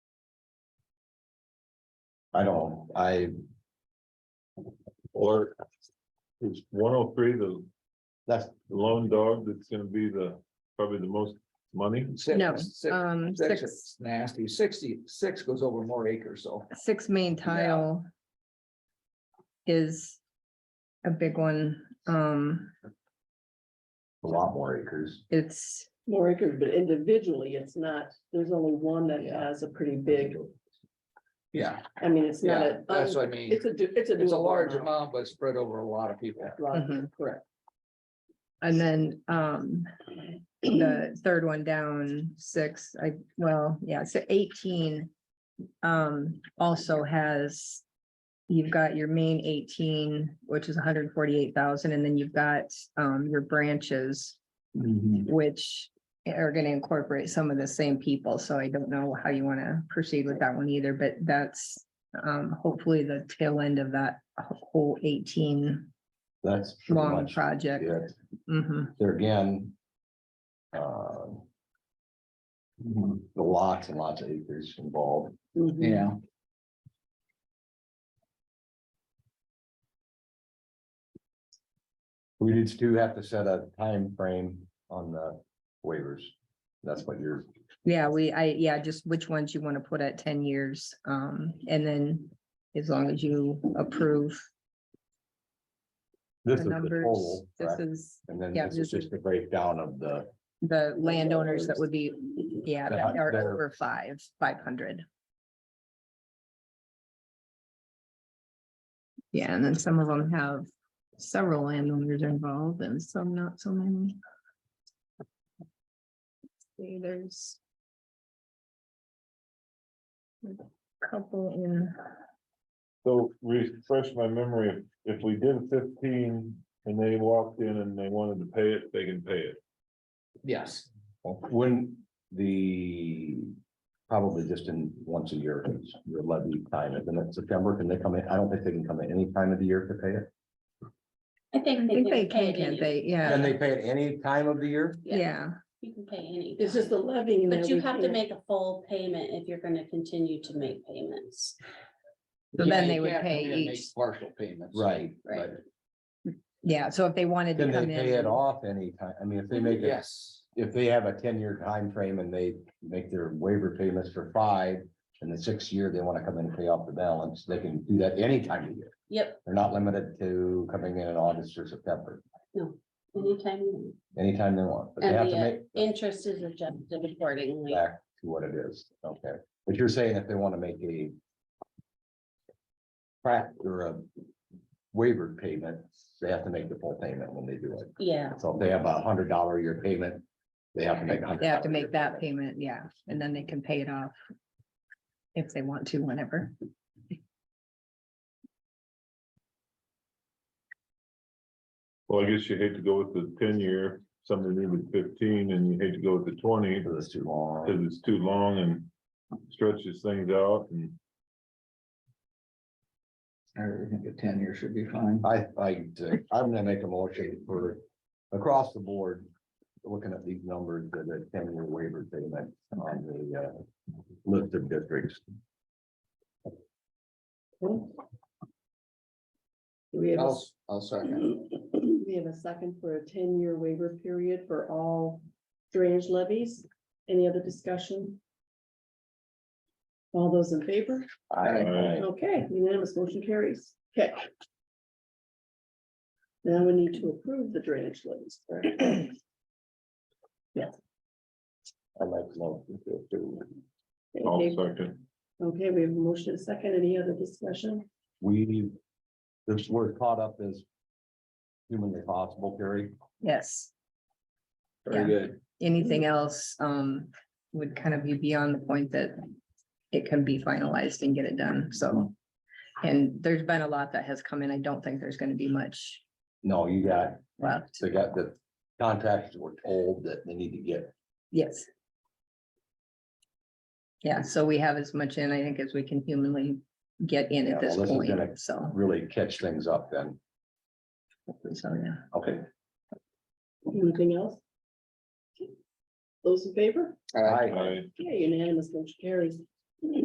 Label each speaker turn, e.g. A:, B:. A: I don't, I,
B: Or is one oh three the
A: that's.
B: lone dog that's gonna be the, probably the most money?
C: No,
D: Six, six,
C: um,
D: six
C: six,
D: is nasty, sixty, six goes over more acres, so.
C: six main tile. Is. A big one, um,
A: A lot more acres.
C: it's,
E: more acres, but individually, it's not, there's only one that
D: Yeah.
E: has a pretty big,
D: Yeah,
E: I mean, it's not
D: yeah,
E: a.
D: that's
E: un-
D: what I mean,
E: It's a, do- it's a.
D: it's a
E: doable
D: large amount, but spread over a lot of people.
E: Lot,
F: Mm-hmm.
C: Mhm.
E: Correct.
C: and then, um. The third one down, six, I, well, yeah, so eighteen. Um, also has. You've got your main eighteen, which is hundred and forty-eight thousand, and then you've got, um, your branches.
A: Mm-hmm,
C: which are gonna incorporate some of the same people, so I don't know how you wanna proceed with that one either, but that's um, hopefully the tail end of that whole eighteen
A: That's. pretty
C: long
A: much
C: project.
A: it.
C: Mhm.
A: There again. uh,
D: Mm-hmm.
A: The lots and lots of acres involved.
E: Mhm.
D: Yeah,
A: We just do have to set a time frame on the waivers. That's what you're,
C: Yeah, we, I, yeah, just which ones you wanna put at ten years, um, and then as long as you approve
A: this is
C: the
A: the
C: numbers,
A: total,
C: this
A: correct?
C: is
A: And then
C: yeah,
A: this is
C: this is-
A: just a breakdown of the,
C: the landowners that would be, yeah, that are
A: They're-
C: over five, five hundred. Yeah, and then some of them have several landowners involved and some not so many. See, there's. a Couple in,
B: So refresh my memory, if we did fifteen and they walked in and they wanted to pay it, they can pay it.
D: yes,
A: when the, probably just in once a year, is your levy time, and then it's September, can they come in? I don't think they can come at any time of the year to pay it.
F: I think.
C: I think they
F: pay
C: can,
F: it
C: can't
F: any-
C: they? Yeah,
A: Can they pay at any time of the year?
C: yeah,
F: You can pay any.
E: It's just the
F: time.
E: levying.
F: But
E: that
F: you
E: we
F: have to
E: can't-
F: make a full payment if you're gonna continue to make payments.
C: So
D: Yeah,
C: then
D: you
C: they would
D: can't come
C: pay
D: in and make
C: each.
D: Partial payments.
A: Right,
F: Right.
A: right.
C: yeah. So if they wanted to
A: Can they
C: come
A: pay it
C: in,
A: off anytime? I mean, if they
D: Mm,
A: make it,
D: Yes,
A: if they have a ten-year time frame and they make their waiver payments for five. And the sixth year, they want to come in and pay off the balance, they can do that any time of year.
F: Yep,
A: They're not limited to coming in in August or September,
F: anytime. you
A: anytime they want, but they
F: want.
A: have
F: And
A: to
F: the uh,
A: make
F: interest is adjusted accordingly.
A: back to what it is, okay? But you're saying if they want to make a prac or a waiver payment, they have to make the full payment when they do it.
F: Yeah,
A: So if they have a hundred dollar a year payment, they have to make. a
C: they have to
A: $100 a year
C: make that payment, yeah, and then they can pay it off. If they want to, whenever.
B: Well, I guess you hate to go with the ten year, something needed fifteen and you hate to go with the twenty
A: Because it's too long.
B: because it's too long and stretches things out and.
D: I think a ten year should be fine.
A: I, I, I'm gonna make a motion for across the board, looking at these numbers, that a ten year waiver payment on the, uh, list of districts.
E: Do We have, a-
D: I'll, I'll second.
E: we have a second for a ten-year waiver period for all drainage levies. Any other discussion? All those in favor?
B: Aye.
E: Okay, unanimous motion carries. Okay. Now we need to approve the drainage levies. correct?
A: I like low. We,
B: I'll
E: Okay,
B: second.
E: Okay, we have a motion and a second. Any other discussion?
A: this word caught up as humanly possible, Gary.
C: Yes,
D: Very
C: Yeah.
D: good.
C: anything else um would kind of be beyond the point that it can be finalized and get it done, so. And there's been a lot that has come in. I don't think there's gonna be much
A: No, you got,
C: left.
A: they got the contractors were told that they need to get,
C: Yes. Yeah, so we have as much in, I think, as we can humanly get in
A: Yeah,
C: at this
A: well, this is
C: point,
A: gonna-
C: so.
A: really catch things up then.
C: So, yeah.
A: Okay.
E: Anything else? Those in favor?
D: All right.
B: Aye.
E: Okay, unanimous motion carries.